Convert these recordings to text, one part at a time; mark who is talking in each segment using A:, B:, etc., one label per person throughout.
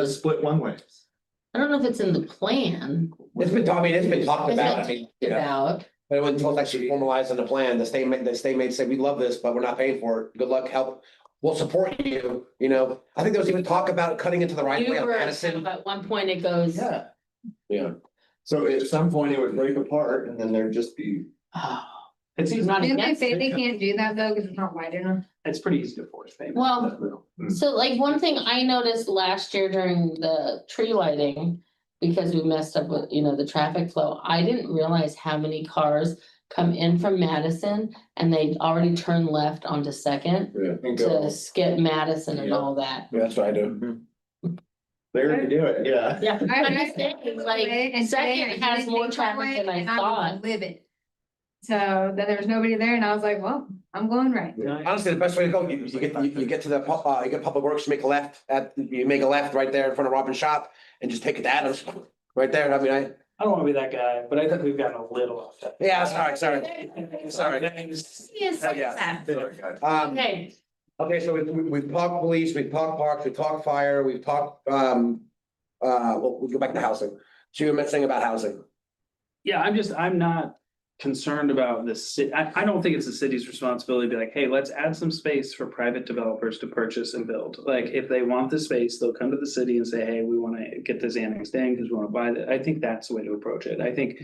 A: does split one way.
B: I don't know if it's in the plan.
C: It's been, I mean, it's been
A: Oh,
C: talked
B: It's
C: about, I
B: been
C: mean,
B: talked
C: yeah.
B: about,
C: but it wasn't until it's actually formalized in the plan, the state made, the state made say, we love this, but we're not paying for it, good luck, help. We'll support you, you know, I think there was even talk about cutting into the right
B: you
C: way on
B: were,
C: Madison.
B: at one point it goes,
A: Yeah.
C: Yeah.
A: So at some point it would break apart and then there'd just be.
B: oh,
D: It's easy,
B: not
E: Didn't they
B: against
E: say
B: it.
E: they can't do that though, because it's not wide enough?
D: it's pretty easy to force payment.
B: Well, so like one thing I noticed last year during the tree lighting. Because we messed up with, you know, the traffic flow, I didn't realize how many cars come in from Madison and they already turn left onto Second.
A: And
B: To
A: go,
B: skip Madison and all that.
C: That's what I do.
A: there you do it, yeah.
B: Yeah.
E: I-
B: I'm
E: I-
B: just saying,
E: Today
B: like,
E: and today I
B: Second has
E: didn't
B: more
E: think that
B: traffic
E: way,
B: than I
E: and I'm
B: thought.
E: livid. So then there was nobody there and I was like, well, I'm going right.
C: Honestly, the best way to go, you, you get, you, you get to the, pu- uh, you get Public Works, you make a left at, you make a left right there in front of Robin's shop and just take it to Adams, right there, I mean, I,
D: I don't wanna be that guy, but I think we've gotten a little off that.
C: yeah, sorry, sorry. Sorry.
D: Thanks.
C: Hell, yeah. Um,
B: Okay,
C: Okay, so we've, we've- we've talked police, we've talked parks, we've talked fire, we've talked, um, uh, well, we go back to housing. So you were mentioning about housing.
D: Yeah, I'm just, I'm not concerned about this. ci- I, I don't think it's the city's responsibility to be like, hey, let's add some space for private developers to purchase and build. Like, if they want the space, they'll come to the city and say, hey, we wanna get this annexed in because we wanna buy that. I think that's the way to approach it. I think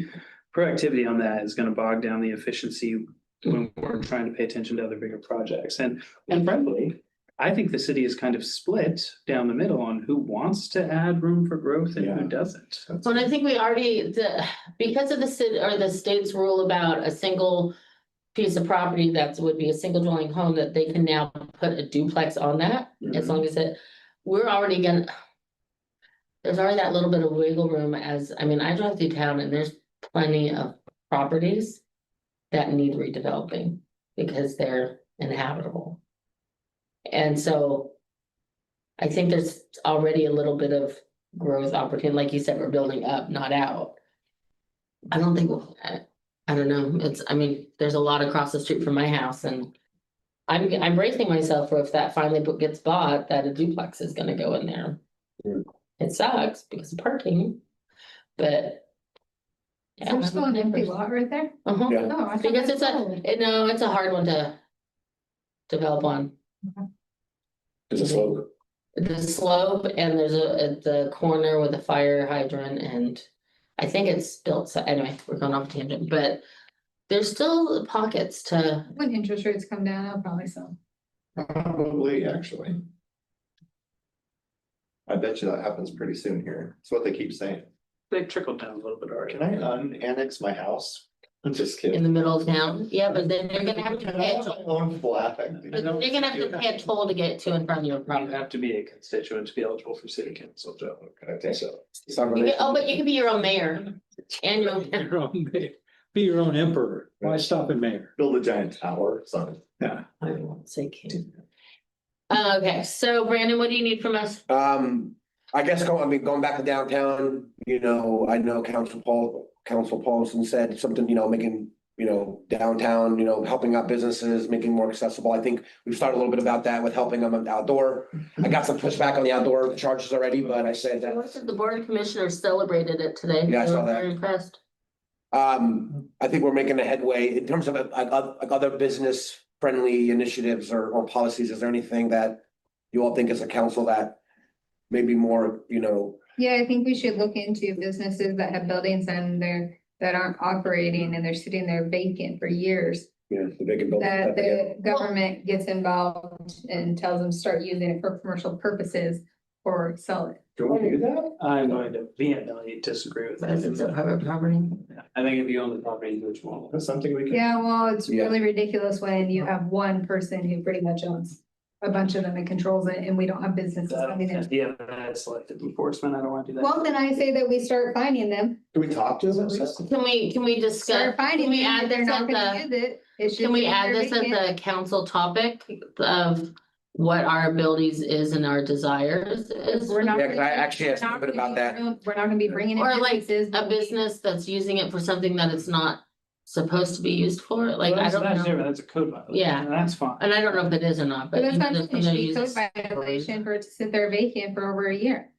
D: proactivity on that is gonna bog down the efficiency when we're trying to pay attention to other bigger projects. And, and frankly, I think the city is kind of split down the middle on who wants to add room for growth and
A: Yeah.
D: who doesn't.
B: so I think we already, the, because of the city or the state's rule about a single. Piece of property that would be a single dwelling home that they can now put a duplex on that, as long as it, we're already gonna. There's already that little bit of wiggle room as, I mean, I drive through town and there's plenty of properties. That need redeveloping because they're inhabitable. And so. I think there's already a little bit of growth opportunity, like you said, we're building up, not out. I don't think, I, I don't know, it's, I mean, there's a lot across the street from my house and. I'm, I'm bracing myself for if that finally bo- gets bought, that a duplex is gonna go in there.
C: Hmm.
B: It sucks because of parking, but. Yeah,
E: There's still an empty lot right there.
B: Uh-huh.
C: Yeah.
E: Oh, I thought
B: Because
E: that's
B: it's a,
E: sold.
B: it- no, it's a hard one to develop on.
C: Is it slow?
B: The slope and there's a, at the corner with a fire hydrant and I think it's built, so anyway, we're going off tangent, but there's still pockets to,
E: When interest rates come down, I'll probably sell.
A: Probably, actually. I bet you that happens pretty soon here. It's what they keep saying.
D: They trickled down a little bit already.
A: Can I unannex my house? I'm just
B: in
A: kidding.
B: the middle of town, yeah, but then they're gonna have to
A: Can I
B: pay a
A: have my
B: toll.
A: Own flat. I think.
B: But They're gonna have to pay a toll to get to and from your
D: You
B: property.
D: have to be a constituent to be eligible for city council, Joe.
A: I think so.
B: You could- Oh, but you could be your own mayor and your,
F: Be your own ma- be your own emperor. Why stop at mayor?
A: Build a giant tower, son.
F: Yeah.
B: I won't say king. Uh, Okay, so Brandon, what do you need from us?
C: Um, I guess going, I mean, going back to downtown, you know, I know Council Paul, Council Paulson said something, you know, making, you know, downtown, you know, helping out businesses, making more accessible. I think we've started a little bit about that with helping them outdoor. I got some pushback on the outdoor charges already, but I said that.
B: The board of commissioners celebrated it today.
C: Yeah, I
B: They
C: saw
B: were
C: that.
B: Very impressed.
C: Um, I think we're making a headway in terms of uh, like oth- like other business friendly initiatives or or policies. Is there anything that you all think as a council that maybe more, you know,
E: Yeah, I think we should look into businesses that have buildings and they're, that aren't operating and they're sitting there vacant for years.
C: you know, the big and build.
E: That the government gets involved and tells them start using it for commercial purposes or sell it.
A: Do we do that?
D: I'm going to vehemently disagree with
B: Because it's a
D: that.
B: private property.
D: I think if you own the property, you would want.
A: That's something we can.
E: Yeah, well, it's
C: Yeah.
E: really ridiculous when you have one person who pretty much owns a bunch of them and controls it and we don't have businesses coming in.
D: Yeah, that's selective enforcement. I don't want to do that.
E: Well, then I say that we start finding them,
A: Do we talk to them?
B: Can we, can we discuss,
E: start
B: can
E: finding
B: we
E: them,
B: add
E: if they're
B: this at
E: not gonna
B: the,
E: use it. It's
B: can
E: just
B: we
E: sitting
B: add
E: there
B: this at
E: vacant.
B: the council topic of what our abilities is and our desires is?
E: We're not.
C: Yeah, 'cause I
E: gonna-
C: actually have
E: we're not
C: something
E: gonna
C: about
E: be
C: that.
E: room- We're not gonna be bringing. in
B: Or like
E: businesses
B: A
E: when we-
B: business that's using it for something that it's not supposed to be used for, like, I
D: That's-
B: don't
D: that's
B: know.
D: different. That's a code violation.
B: Yeah.
D: and That's fine.
B: And I don't know if it is or not, but.
E: But that's
B: you know,
E: not
B: there's
E: an
B: somebody
E: issue,
B: who
E: code
B: uses-
E: violation for it to sit there vacant for over a year.